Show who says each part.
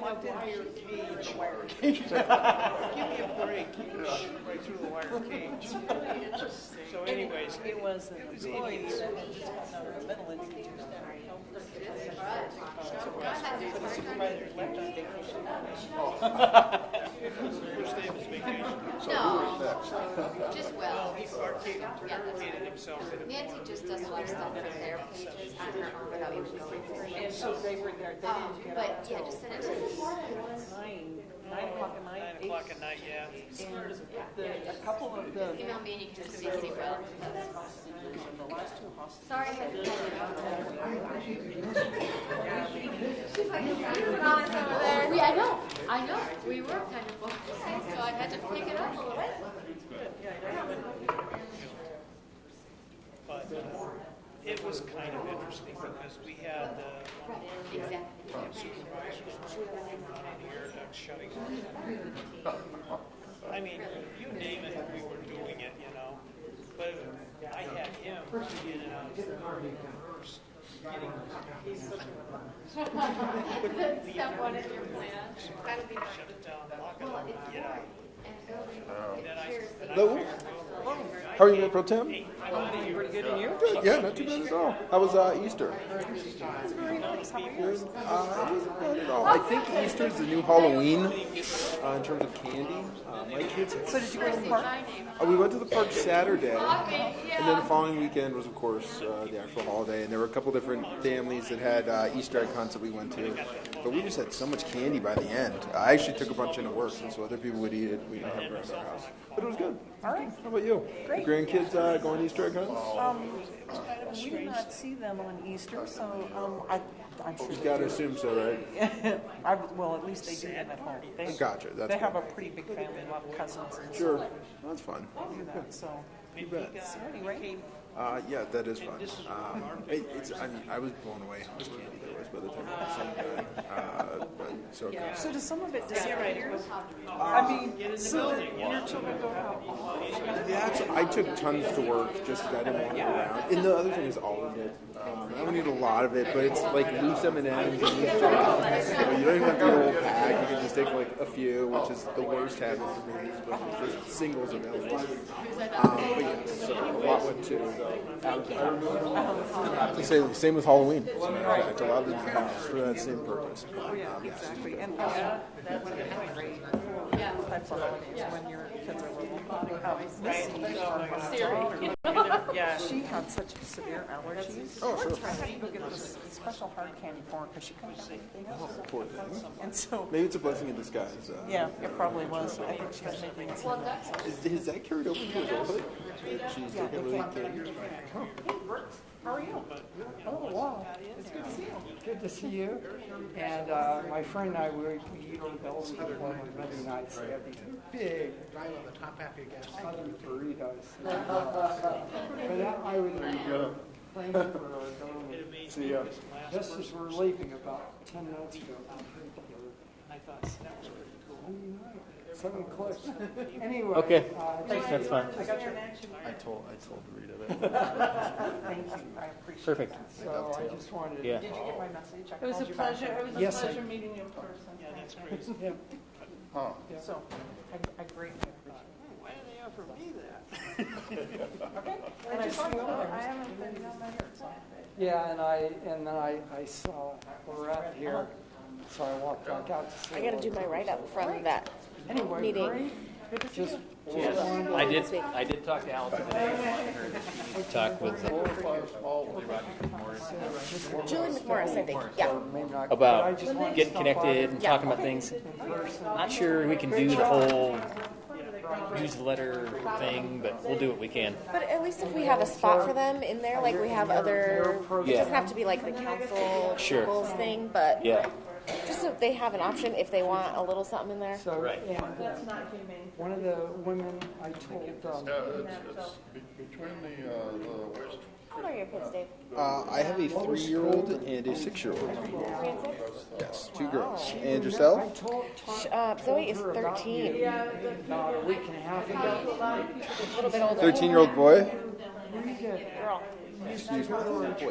Speaker 1: my wire cage. Give me a break, you can shoot right through the wire cage. So anyways,
Speaker 2: It was an employee that had a mental institute.
Speaker 1: supervisors left on vacation. First day of his vacation,
Speaker 3: So who is next?
Speaker 4: Just well.
Speaker 1: he barricaded himself in a
Speaker 4: Nancy just does a lot of stuff for their pages on her own without even going through
Speaker 2: And
Speaker 4: it.
Speaker 2: so they were there, they
Speaker 4: Um,
Speaker 2: didn't get
Speaker 4: but
Speaker 2: out
Speaker 4: yeah,
Speaker 2: till
Speaker 4: just send it to
Speaker 2: nine, nine o'clock at night.
Speaker 1: nine
Speaker 2: eight-
Speaker 1: o'clock at night, yeah.
Speaker 2: And the, a couple of the,
Speaker 4: email me and you can just CC well.
Speaker 2: the last two hostages.
Speaker 4: Sorry, I had to tell you. We, I know, I know, we were kind of focused, so I had to pick it up a little bit.
Speaker 1: But uh, it was kind of interesting because we had uh, one
Speaker 4: Exactly.
Speaker 1: of the supervisors was working on the air duct shutting. off. I mean, you name it, we were doing it, you know. But I had him in and out of the first.
Speaker 4: Step one in your plan. That'll be.
Speaker 1: Shut it down, lock it up, get out.
Speaker 4: And go read
Speaker 1: Then I,
Speaker 4: pictures.
Speaker 1: then I
Speaker 5: Hello?
Speaker 1: figured, well,
Speaker 5: How are you, Mayor Pro Tem?
Speaker 1: hey, I'm out of here.
Speaker 2: Good, and you?
Speaker 5: Good, yeah, not too bad at all. How was uh, Easter?
Speaker 2: Very nice, how Oh. are you?
Speaker 5: Good. Uh, it wasn't bad at all. I think Easter is the new Halloween uh, in terms of candy. Uh, my kids.
Speaker 2: So did you go to the park?
Speaker 4: My name.
Speaker 5: Uh, we went to the park Saturday,
Speaker 4: Okay,
Speaker 5: and then the
Speaker 4: yeah.
Speaker 5: following weekend was, of course, uh, the actual holiday. And there were a couple different families that had uh, Easter egg hunts that we went to. But we just had so much candy by the end. I actually took a bunch into work, and so other people would eat it. We didn't have it around our house. But it was good.
Speaker 2: All right.
Speaker 5: How about you?
Speaker 2: Great.
Speaker 5: Grandkids uh, going to Easter egg hunts?
Speaker 2: Um, we did not see them on Easter, so, um, I, I'm sure.
Speaker 5: You
Speaker 2: they
Speaker 5: gotta
Speaker 2: do.
Speaker 5: assume so, right?
Speaker 2: I, well, at least they do them at home. They-
Speaker 5: Gotcha, that's
Speaker 2: They have a
Speaker 5: good.
Speaker 2: pretty big family, a lot of cousins and
Speaker 5: Sure.
Speaker 2: stuff.
Speaker 5: That's fun.
Speaker 2: Do that, so.
Speaker 1: And he
Speaker 5: bet.
Speaker 1: got-
Speaker 2: So anyway,
Speaker 5: Uh, yeah, that is fun. Um, it, it's, I mean, I was blown away how much candy there was by the time I was done. Uh, but so good.
Speaker 2: so does some of it disappear? I mean, so that your children go out.
Speaker 5: That's, I took tons to work just 'cause I didn't want it around. And the other thing is all of it. Um, I don't eat a lot of it, but it's like loose M and M's and loose chocolates. So you don't even have to eat a whole pack. You can just take like a few, which is the worst habit for me. But just singles available. Um, but yeah, so a lot went to. I would say the same with Halloween. As a matter of fact, a lot of them are for that same purpose.
Speaker 2: Oh, yeah, exactly. And also, that's great for types of holidays when your kids are little. Um, Miss Lee,
Speaker 6: Yeah.
Speaker 2: She had such severe allergies. Oh, sure. I had to go get this special hard candy for her because she couldn't have anything else.
Speaker 5: Poor thing.
Speaker 2: And so,
Speaker 5: Maybe it's a blessing in disguise. Uh,
Speaker 2: yeah, it probably was. I think she was making it.
Speaker 4: Well, that's.
Speaker 5: Is, is that carried over to his old She's
Speaker 2: Yeah,
Speaker 5: taking
Speaker 2: it
Speaker 5: really
Speaker 2: came.
Speaker 5: good.
Speaker 2: Hey, Brooks, how are you? Oh, wow. It's good to see you.
Speaker 6: Good to see you. And uh, my friend and I, we we go to Bell's Club on Monday nights. They have these big southern burritos. But I- I was planning for our government.
Speaker 5: See ya.
Speaker 6: Just as we're leaving about ten minutes ago. I thought that was pretty cool. Seven clicks. Anyway.
Speaker 7: Okay.
Speaker 6: uh,
Speaker 7: That's fine.
Speaker 2: I got your action.
Speaker 5: I told, I told Rita that.
Speaker 2: Thank you. I appreciate it.
Speaker 7: Perfect.
Speaker 6: So I just wanted.
Speaker 7: Yeah.
Speaker 2: Did you get my message?
Speaker 6: It was a pleasure, it was a pleasure meeting you.
Speaker 1: Yeah, that's crazy.
Speaker 6: Yeah.
Speaker 2: So, I, I greatly appreciate it.
Speaker 1: Why did they offer me that?
Speaker 2: Okay. And I just want to I haven't been down my hair, so.
Speaker 6: Yeah, and I, and then I, I saw Lorette here, so I walked back out to see.
Speaker 8: I gotta do my write-up from that
Speaker 6: Anyway,
Speaker 8: meeting.
Speaker 6: just,
Speaker 7: Yes, I did, I did talk to Allison today. Talk with uh,
Speaker 8: Julie McMorris, I think, yeah.
Speaker 6: maybe not. but I
Speaker 7: about
Speaker 6: just wanted to
Speaker 7: getting
Speaker 6: stop by
Speaker 7: connected and
Speaker 8: Yeah.
Speaker 7: talking about things. Not sure we can do the whole newsletter thing, but we'll do what we can.
Speaker 8: But at least if we have a spot for them in there, like we have other, it
Speaker 7: Yeah.
Speaker 8: doesn't have to be like the council
Speaker 7: Sure.
Speaker 8: goals thing, but
Speaker 7: Yeah.
Speaker 8: just so they have an option if they want a little something in there.
Speaker 6: So,
Speaker 7: Right.
Speaker 6: and uh, one of the women I told, um,
Speaker 9: Yeah, it's, it's be- between the, uh, the waste
Speaker 8: How old are your kids, Dave?
Speaker 5: Uh, I have a three-year-old and a six-year-old.
Speaker 8: Three and six?
Speaker 5: Yes, two girls.
Speaker 6: she
Speaker 5: And
Speaker 6: remem- I
Speaker 5: yourself?
Speaker 6: told, told
Speaker 8: Uh, Zoe is
Speaker 6: her about you
Speaker 8: thirteen.
Speaker 6: about a week and a half ago.
Speaker 8: A little bit older.
Speaker 5: Thirteen-year-old boy?
Speaker 6: Rita
Speaker 8: Girl.
Speaker 5: Excuse me.